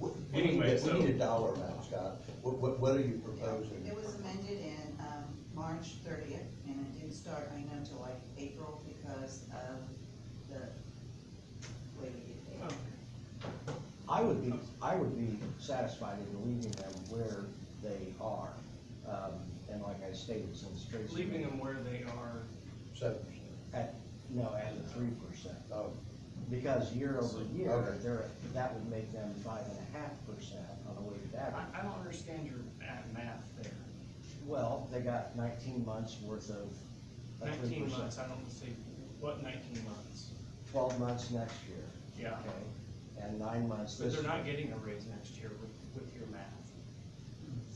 We need, Anyway, a- so- we need a dollar amount, Scott. What, what, what are you proposing? It was amended in, um, March thirtieth, and it didn't start, I know, till like April because of the way we did it. I would be, I would be satisfied in leaving them where they are, um, and like I stated, since Tracy. Leaving them where they are, Seven percent. At, no, at the three percent, Oh, because year over year, Okay. they're, that would make them five and a half percent on the weighted I, average. I don't understand your ma- math there. Well, they got nineteen months worth of. a three Nineteen percent. months, I don't see, what nineteen months? Twelve months next year, Yeah, okay, and nine months but this they're year. not getting a raise next year with, with your math.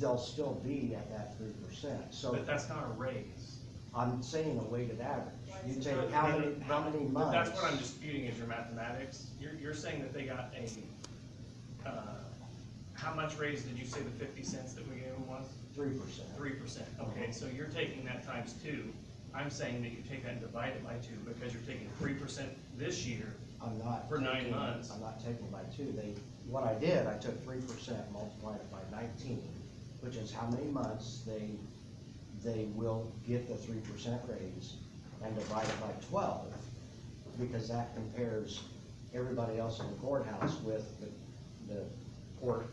They'll still be at that three percent, so But that's not a raise. I'm saying a weighted average. You take No, how no, many, no, how many but months? That's what I'm disputing is your mathematics. You're, you're saying that they got a, uh, how much raise did you say the fifty cents that we gave them was? Three percent. Three percent, okay, so you're taking that times two. I'm saying that you take that and divide it by two because you're taking three percent this year. I'm not. For nine taking- months. I'm not taking by two. They, what I did, I took three percent, multiplied it by nineteen, which is how many months they, they will get the three percent raise and divided by twelve, because that compares everybody else in the courthouse with the, the court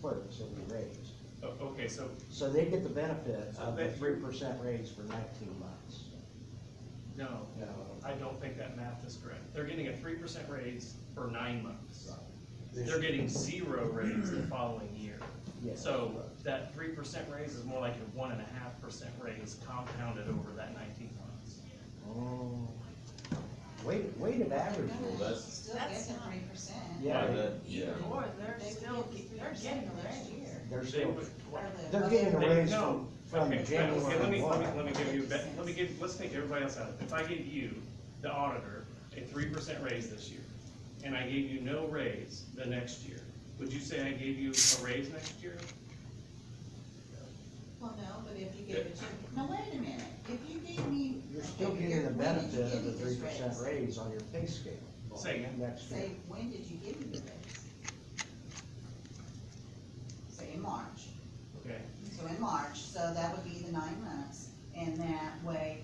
clerks that we raised. O- Oh, Okay, so So they get the benefit So of the they- three percent raise for nineteen months. No, No. I don't think that math is correct. They're getting a three percent raise for nine months. Right. this- They're getting zero raise the following year. Yes. So that three percent raise is more like a one and a half percent raise compounded over that nineteen months. Oh. Weighted, weighted average No, is. no, that's- she still gets That's the not- three percent. Yeah, Like they- that, yeah. Even more, they're They still, still get three they're getting percent the next raise. year. they're They still, would- Or the- they're getting a They- raise no. from, from Okay, okay, Let January me, let me, let me one. give you, a bet- let me give, let's take everybody else out. If I give you, the auditor, a three percent raise this year, and I gave you no raise the next year, would you say I gave you a raise next year? Well, no, but if you gave it to, now wait a minute, if you gave me. You're still okay, getting the when did you benefit of give the me this three percent raise on your pay scale. Say again? Next year. Say, when did you give me the raise? Say in March. Okay, So in March, so that would be the nine months, and that way,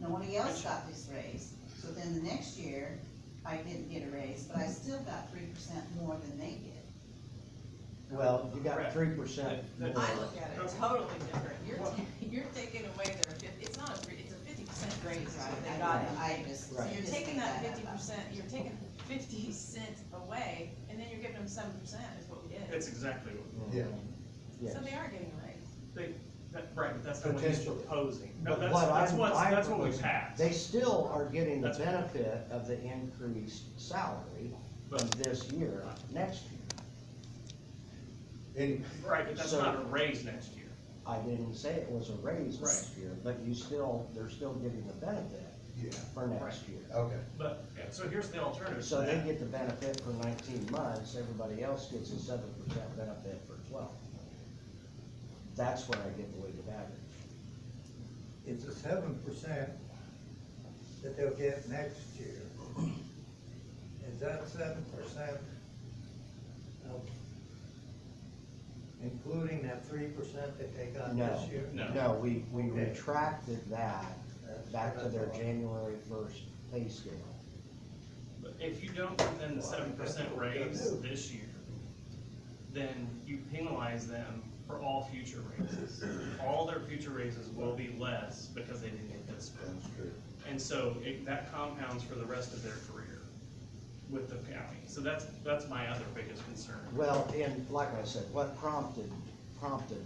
nobody else got this raise. So then the next year, I didn't get a raise, but I still got three percent more than they did. Well, you got Correct. three percent That- more. I look at it totally different, you're, Well- ta- you're taking away their fifty, it's not a, three- it's a fifty percent raise, is Right, what I they got. know, I just. Right. you You're just taking made that up. fifty percent, you're taking fifty cent away, and then you're giving them seven percent is what we did. that's exactly what. Yeah. Yes. So they are getting a raise. They, that, right, but that's not what he's Potentially. proposing. No, But that's, what that's I'm- what, I'm that's what we proposing, passed. They still are getting the That's what- benefit of the increased salary from But- this year, next year. Any, Right, but that's So- not a raise next year. I didn't say it was a raise next year, but you still, they're still getting the benefit yeah, for next year. okay. But, yeah, so here's the alternative to So they that. get the benefit for nineteen months, everybody else gets a seven percent benefit for twelve. That's where I get the weighted average. it's a seven percent that they'll get next year. Is that seven percent of, including that three percent that they got No, this year? No. no, we, we Okay. retracted that That's back what to I their thought. January first pay scale. But If you don't give them the seven percent raise this year, then you penalize them for all future raises. All their future raises will be less because they didn't get this one. That's true. And so it, that compounds for the rest of their career with the county. So that's, that's my other biggest concern. Well, and like I said, what prompted, prompted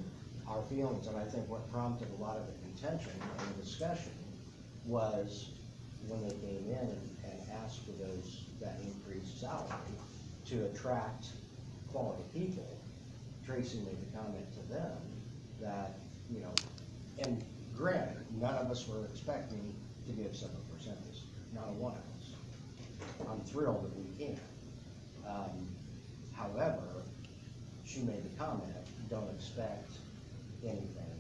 our feelings, and I think what prompted a lot of the contention and discussion was when they came in and and asked for those, that increased salary to attract quality people. Tracy made the comment to them that, you know, and granted, none of us were expecting to give seven percent this year, not a one of us. I'm thrilled that we can. Um, However, she made the comment, don't expect anything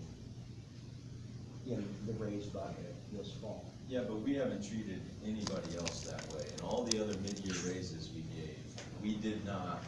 in the raised bucket this fall. Yeah, but we haven't treated anybody else that way, and all the other mid-year raises we gave, we did not